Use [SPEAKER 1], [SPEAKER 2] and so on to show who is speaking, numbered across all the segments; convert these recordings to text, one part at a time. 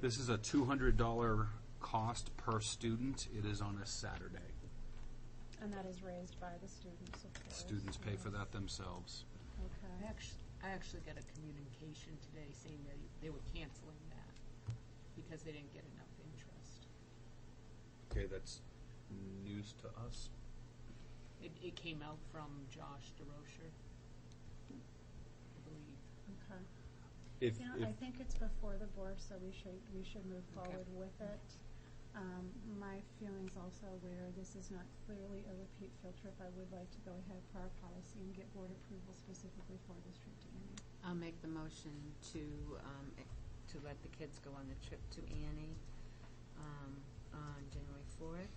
[SPEAKER 1] This is a two hundred dollar cost per student. It is on a Saturday.
[SPEAKER 2] And that is raised by the students, of course.
[SPEAKER 1] Students pay for that themselves.
[SPEAKER 3] I
[SPEAKER 2] Okay.
[SPEAKER 3] actually, I actually got a communication today saying that they were canceling that because they didn't get enough interest.
[SPEAKER 1] Okay, that's news to us.
[SPEAKER 3] It, it came out from Josh DeRocher, I believe.
[SPEAKER 2] Okay.
[SPEAKER 1] If,
[SPEAKER 2] You know,
[SPEAKER 1] if,
[SPEAKER 2] I think it's before the board, so we should, we should move
[SPEAKER 3] Okay.
[SPEAKER 2] forward with it. Um, my feelings also where this is not clearly a repeat field trip, I would like to go ahead for our policy and get board approval specifically for this trip to Annie.
[SPEAKER 4] I'll make the motion to, um, ac- to let the kids go on the trip to Annie, um, on January fourth.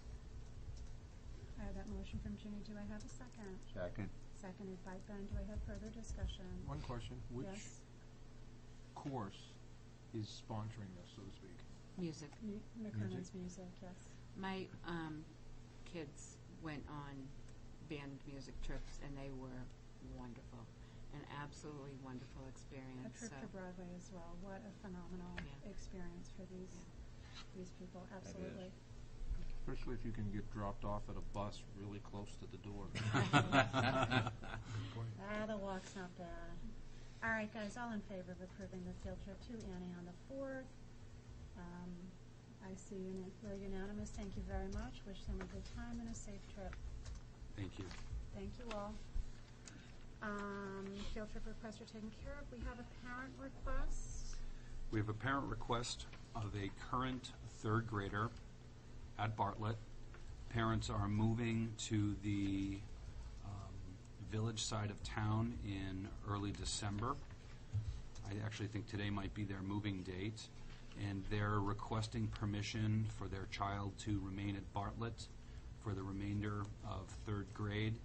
[SPEAKER 2] I have that motion from Ginny, do I have a second?
[SPEAKER 5] Second.
[SPEAKER 2] Seconded by Ben, do I have further discussion?
[SPEAKER 6] One question, which
[SPEAKER 2] Yes,
[SPEAKER 6] course is sponsoring this, so to speak?
[SPEAKER 4] Music.
[SPEAKER 2] Mu- McKernan's music, yes.
[SPEAKER 4] My, um, kids went on band music trips and they were wonderful, an absolutely wonderful
[SPEAKER 2] A
[SPEAKER 4] experience, so.
[SPEAKER 2] trip to Broadway as well. What a phenomenal
[SPEAKER 4] Yeah.
[SPEAKER 2] experience for these these people. Absolutely.
[SPEAKER 6] Especially if you can get dropped off at a bus really close to the door.
[SPEAKER 2] Ah, the walk's not bad. All right, guys, all in favor of approving the field trip to Annie on the fourth. Um, I see uni- we're unanimous. Thank you very much. Wish them a good time and a safe trip.
[SPEAKER 1] thank you.
[SPEAKER 2] Thank you all. Um, field trip requests are taken care of. We have a parent request.
[SPEAKER 1] We have a parent request of a current third grader at Bartlett. Parents are moving to the um, village side of town in early December. I actually think today might be their moving date. And they're requesting permission for their child to remain at Bartlett for the remainder of third grade.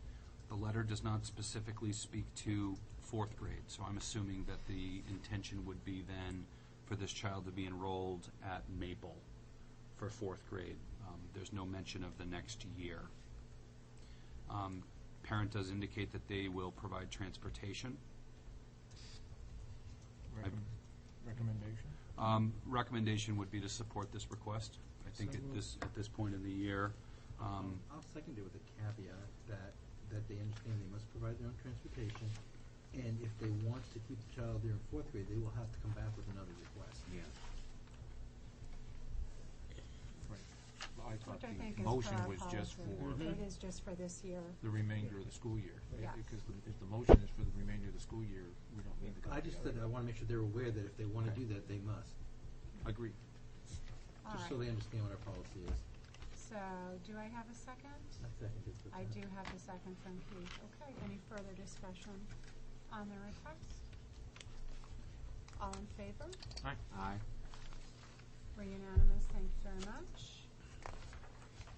[SPEAKER 1] The letter does not specifically speak to fourth grade, so I'm assuming that the intention would be then for this child to be enrolled at Maple for fourth grade. Um, There's no mention of the next year. Um, Parent does indicate that they will provide transportation.
[SPEAKER 6] Recommend- Recommendation?
[SPEAKER 1] Um, Recommendation would be to support this request. I think
[SPEAKER 5] So
[SPEAKER 1] at
[SPEAKER 5] moved.
[SPEAKER 1] this, at this point in the year, um,
[SPEAKER 5] I'll second it with a caveat that, that they understand they must provide their own transportation, and if they want to keep the child there in fourth grade, they will have to come back with another request. Yeah.
[SPEAKER 6] Right. I thought
[SPEAKER 2] Which I think is
[SPEAKER 6] the
[SPEAKER 2] for
[SPEAKER 6] motion
[SPEAKER 2] our
[SPEAKER 6] was just
[SPEAKER 2] policy.
[SPEAKER 6] for
[SPEAKER 5] Mm-hmm.
[SPEAKER 2] It is just for this year.
[SPEAKER 6] the remainder of the school year. Right?
[SPEAKER 2] Yeah.
[SPEAKER 6] Because the- if the motion is for the remainder of the school year, we don't need the
[SPEAKER 5] I
[SPEAKER 6] caveat.
[SPEAKER 5] just said, I wanna make sure they're aware that if they wanna do that, they must,
[SPEAKER 6] Agreed.
[SPEAKER 2] All
[SPEAKER 5] just so
[SPEAKER 2] right.
[SPEAKER 5] they understand what our policy is.
[SPEAKER 2] So, do I have a second?
[SPEAKER 5] I second it with
[SPEAKER 2] I
[SPEAKER 5] that.
[SPEAKER 2] do have the second from Keith. Okay, any further discussion on the request? All in favor?
[SPEAKER 1] Aye.
[SPEAKER 2] We're unanimous, thank you very much.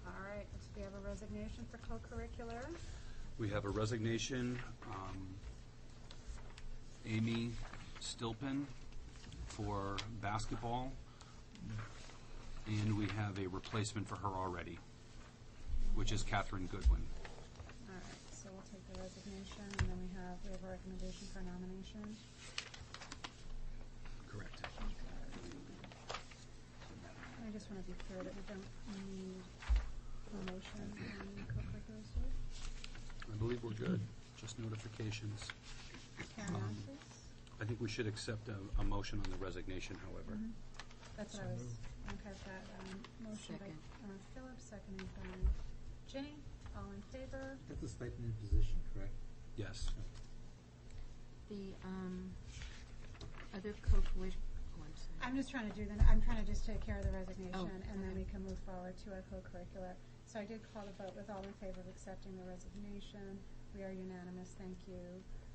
[SPEAKER 2] All right, so we have a resignation for co-curricular.
[SPEAKER 1] We have a resignation. um, Amy Stilpen for basketball. And we have a replacement for her already, which is Catherine Goodwin.
[SPEAKER 2] All right, so we'll take the resignation, and then we have, we have a recommendation for nomination.
[SPEAKER 1] Correct.
[SPEAKER 2] I just want to be clear that we don't need a motion on co-curriculars, do we?
[SPEAKER 1] I believe we're good, just notifications.
[SPEAKER 2] Karen
[SPEAKER 1] Um,
[SPEAKER 2] Masters?
[SPEAKER 1] I think we should accept a, a motion on the resignation, however.
[SPEAKER 2] Mhm. That's what I was, okay, I've got, um, motion by,
[SPEAKER 4] Second.
[SPEAKER 2] uh, Philip, seconded by Ginny, all in favor?
[SPEAKER 5] That's a stipend position, correct?
[SPEAKER 1] Yes.
[SPEAKER 4] The, um, other co-curric, oh, I'm sorry.
[SPEAKER 2] I'm just trying to do the, I'm trying to just take care of the resignation, and then
[SPEAKER 4] Oh, okay.
[SPEAKER 2] we can move forward to our co-curricular. So I did call the vote with all in favor of accepting the resignation, we are unanimous, thank you.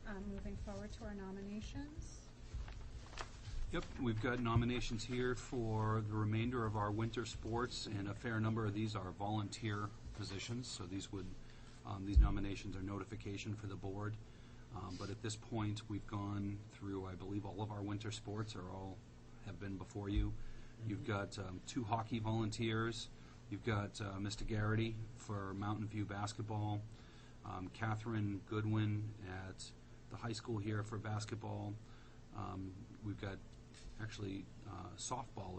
[SPEAKER 2] Um, moving forward to our nominations,
[SPEAKER 1] Yep, we've got nominations here for the remainder of our winter sports, and a fair number of these are volunteer positions, so these would, um, these nominations are notification for the board. Um, but at this point, we've gone through, I believe, all of our winter sports are all, have been before you. You've got, um, two hockey volunteers, you've got, uh, Mr. Garrity for Mountain View basketball, um, Catherine Goodwin at the high school here for basketball. Um, we've got actually uh, softball